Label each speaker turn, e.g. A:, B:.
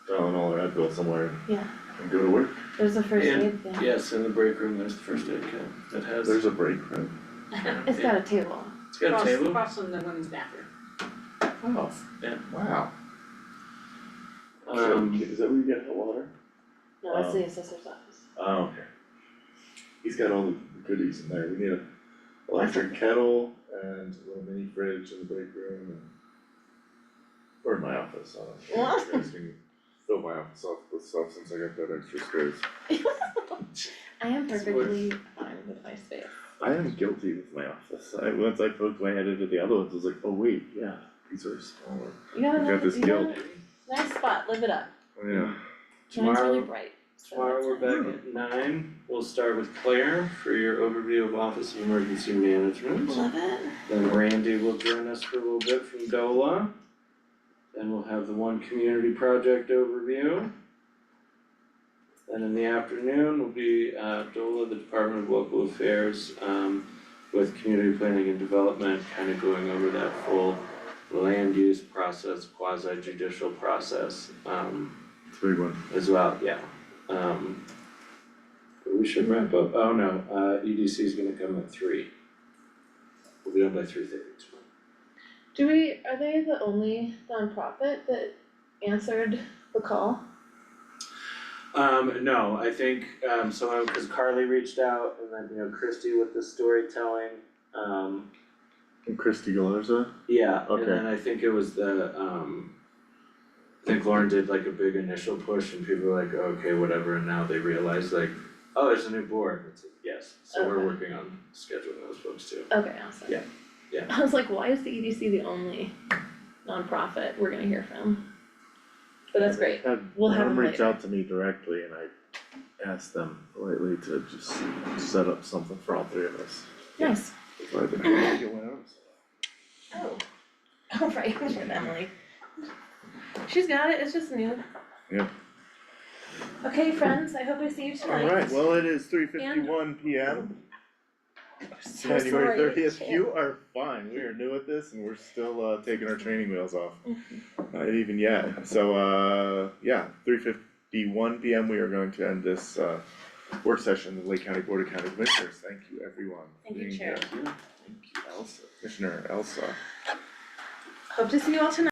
A: could go somewhere
B: yeah,
A: and go to work.
B: there's a first
C: And-
B: aid thing,
C: Yes, in the break room, there's the first aid kit that has,
A: There's a break room.
B: it's got a table,
C: it's got a
D: Across-
C: table,
D: Across from the women's bathroom.
A: Oh.
C: Yeah.
A: Wow.
C: um,
A: Is that where you get hot water?
B: no, that's the assessor's office.
A: Oh, okay. He's got all the goodies in there, we need an electric kettle and a little mini fridge in the break room and. Or in my office, I don't know, you guys can fill my office up with stuff since I got that extra space.
B: I am
C: It's
B: perfectly fine with my space.
A: I am guilty with my office, I, once I poked my head into the other ones, I was like, oh wait, yeah, these are smaller.
B: You got
A: I've got
B: another,
A: this
B: you got a nice spot, live it up,
A: Oh, Yeah,
B: and it's really
C: Tomorrow-
B: bright, so
C: tomorrow
B: that's
C: we're
B: nice.
C: back at nine, we'll start with Claire for your overview of Office of Emergency Management.
B: Love it.
C: Then Randy will join us for a little bit from DOLA. Then we'll have the one community project overview. Then in the afternoon will be uh DOLA, the Department of Local Affairs, um with community planning and development, kind of going over that full land use process, quasi judicial process, um
A: it's a big one.
C: as well, yeah. Um but we should wrap up, oh no, uh EDC is gonna come at three. We'll be done by three thirty tomorrow.
B: Do we, are they the only nonprofit that answered the call?
C: Um, no, I think, um, someone, cause Carly reached out and then, you know, Christy with the storytelling, um,
A: And Christy Galarza?
C: yeah,
A: Okay.
C: and then I think it was the, um, I think Lauren did like a big initial push and people were like, okay, whatever, and now they realize like, oh, there's a new board, it's like, yes, so we're
B: Okay.
C: working on scheduling those folks too.
B: Okay, awesome.
C: Yeah, yeah.
B: I was like, why is the EDC the only nonprofit we're gonna hear from? But that's great,
A: Had
B: We'll have
A: them
B: them
A: reach out to me directly and I asked them lately to just set up something for all three of us.
B: nice.
A: That's what I've been trying to get one out.
B: Oh. All right, with Emily. She's got it, it's just new.
A: Yeah.
B: Okay, friends, I hope I see you tonight.
A: Alright, well, it is three fifty-one P M,
B: So
A: January
B: sorry, I
A: thirtieth,
B: can't.
A: you are fine, we are new at this and we're still uh taking our training wheels off. Not even yet, so uh, yeah, three fifty-one P M, we are going to end this uh work session of the Lake County Board of County Commissioners, thank you everyone. for
B: Thank you,
A: being
B: Chair.
A: here. Thank you, Elsa, Commissioner Elsa.
B: Hope to see you all tonight.